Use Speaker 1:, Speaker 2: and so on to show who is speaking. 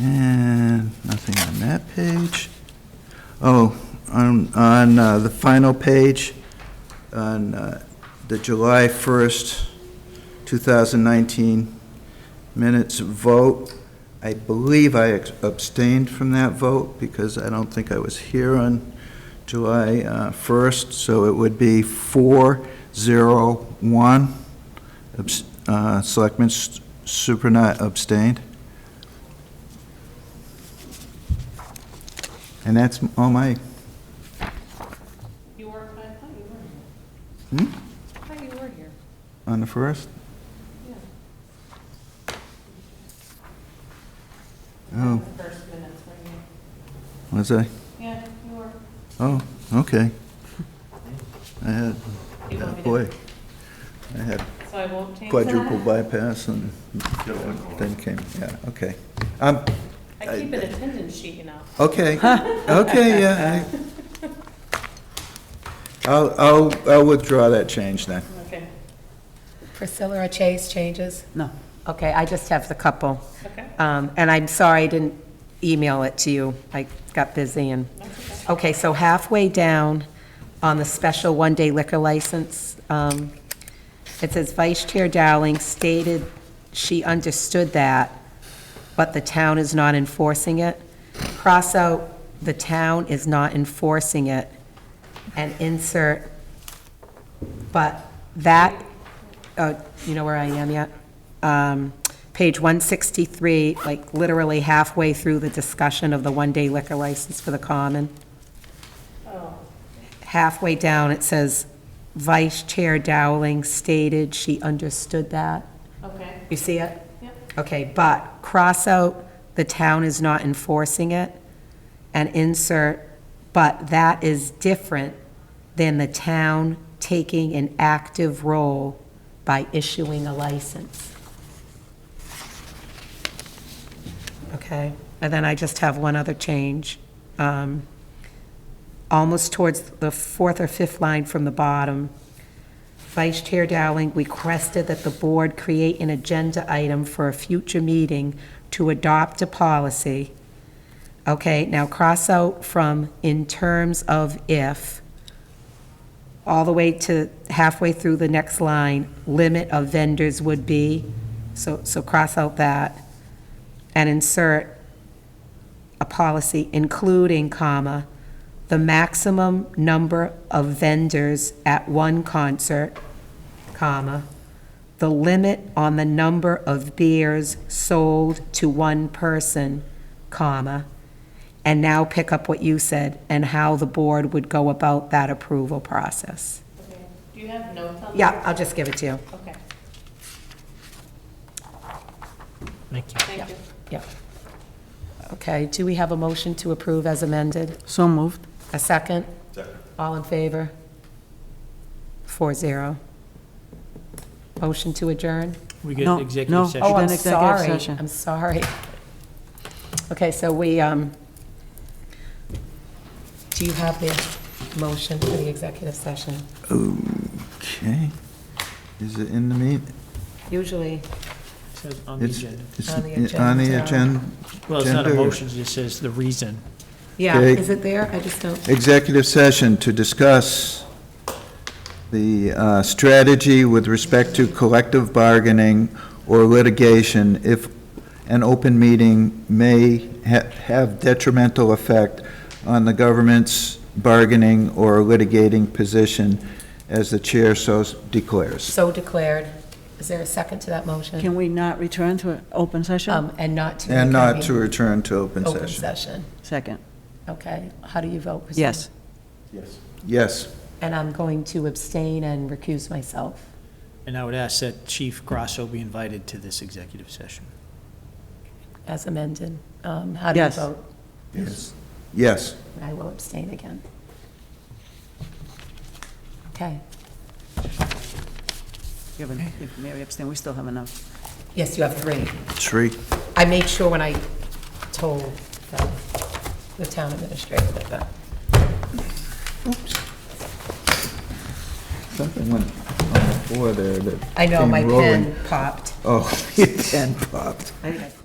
Speaker 1: And nothing on that page. Oh, on, on uh, the final page, on uh, the July 1st, 2019 minutes vote, I believe I ex- abstained from that vote because I don't think I was here on July uh, 1st, so it would be 401. Abs- uh, Selectman S- Supranat abstained. And that's all my,
Speaker 2: You were, I thought you were
Speaker 1: hmm,
Speaker 2: here. I thought you were here.
Speaker 1: on the first?
Speaker 2: Yeah.
Speaker 1: Oh,
Speaker 2: The first minutes, were you?
Speaker 1: was I?
Speaker 2: Yeah, you were.
Speaker 1: Oh, okay. I had,
Speaker 2: You
Speaker 1: oh,
Speaker 2: want me to-
Speaker 1: boy, I had
Speaker 2: So I won't change that?
Speaker 1: quadruple bypass and the other one then came, yeah, okay. Um,
Speaker 2: I keep an attendance sheet, you know.
Speaker 1: okay, okay, yeah. I- I'll, I'll, I'll withdraw that change then.
Speaker 2: Okay,
Speaker 3: Priscilla or Chase changes?
Speaker 4: No. Okay, I just have the couple.
Speaker 2: okay.
Speaker 4: Um, And I'm sorry I didn't email it to you. I got busy and, okay, so halfway down on the special one-day liquor license, um, it says Vice Chair Dowling stated she understood that, but the town is not enforcing it. Cross out, the town is not enforcing it, and insert, but that, oh, you know where I am yet? Um, Page 163, like literally halfway through the discussion of the one-day liquor license for the common. Oh. Halfway down, it says, "Vice Chair Dowling stated she understood that."
Speaker 2: Okay,
Speaker 4: You see it?
Speaker 2: Yep.
Speaker 4: Okay, but cross out, the town is not enforcing it, and insert, but that is different than the town taking an active role by issuing a license. Okay, and then I just have one other change. Um, Almost towards the fourth or fifth line from the bottom, Vice Chair Dowling requested that the board create an agenda item for a future meeting to adopt a policy. Okay, now cross out from in terms of if, all the way to halfway through the next line, limit of vendors would be, so, so cross out that, and insert a policy including, comma, the maximum number of vendors at one concert, comma, the limit on the number of beers sold to one person, comma, and now pick up what you said, and how the board would go about that approval process.
Speaker 2: okay. Do you have notes on that?
Speaker 4: Yeah, I'll just give it to you.
Speaker 2: Okay,
Speaker 5: Thank you.
Speaker 2: thank you.
Speaker 4: Yeah. Okay, do we have a motion to approve as amended?
Speaker 5: So moved.
Speaker 4: A second? All in favor? Four zero. Motion to adjourn?
Speaker 5: We
Speaker 6: No,
Speaker 5: get
Speaker 6: no.
Speaker 5: executive
Speaker 4: Oh,
Speaker 5: session.
Speaker 6: Then
Speaker 4: I'm
Speaker 6: executive
Speaker 4: sorry,
Speaker 6: session.
Speaker 4: I'm sorry. Okay, so we, um, do you have the motion for the executive session?
Speaker 1: Okay. Is it in the meet?
Speaker 4: Usually,
Speaker 5: It says on the
Speaker 1: It's
Speaker 5: agenda.
Speaker 1: it's
Speaker 4: On the
Speaker 1: On the
Speaker 4: agenda.
Speaker 1: agenda?
Speaker 5: Well, it's not a
Speaker 1: Gender.
Speaker 5: motion, it just says the reason.
Speaker 4: yeah,
Speaker 1: Okay.
Speaker 4: is it there? I just don't,
Speaker 1: executive session to discuss the uh, strategy with respect to collective bargaining or litigation if an open meeting may ha- have detrimental effect on the government's bargaining or litigating position as the chair so declares.
Speaker 4: so declared. Is there a second to that motion?
Speaker 6: Can we not return to an open session?
Speaker 4: Um, and not to.
Speaker 1: And not to
Speaker 4: reconvene
Speaker 1: return to open
Speaker 4: Open
Speaker 1: session.
Speaker 4: session,
Speaker 6: Second.
Speaker 4: okay. How do you vote? Christine?
Speaker 6: Yes.
Speaker 1: Yes.
Speaker 4: And I'm going to abstain and recuse myself.
Speaker 5: And I would ask that Chief Grasso be invited to this executive session.
Speaker 4: As amended. Um, How do you
Speaker 6: Yes.
Speaker 4: vote?
Speaker 1: Yes. Yes.
Speaker 4: I will abstain again. Okay.
Speaker 6: You have an- if Mary abstained, we still have enough.
Speaker 4: Yes, you have three.
Speaker 1: Three.
Speaker 4: I made sure when I told the- the town administrator that that.
Speaker 1: Something went on the floor there that.
Speaker 4: I know, my
Speaker 1: came rolling.
Speaker 4: pen popped.
Speaker 1: Oh, your pen popped.
Speaker 6: I-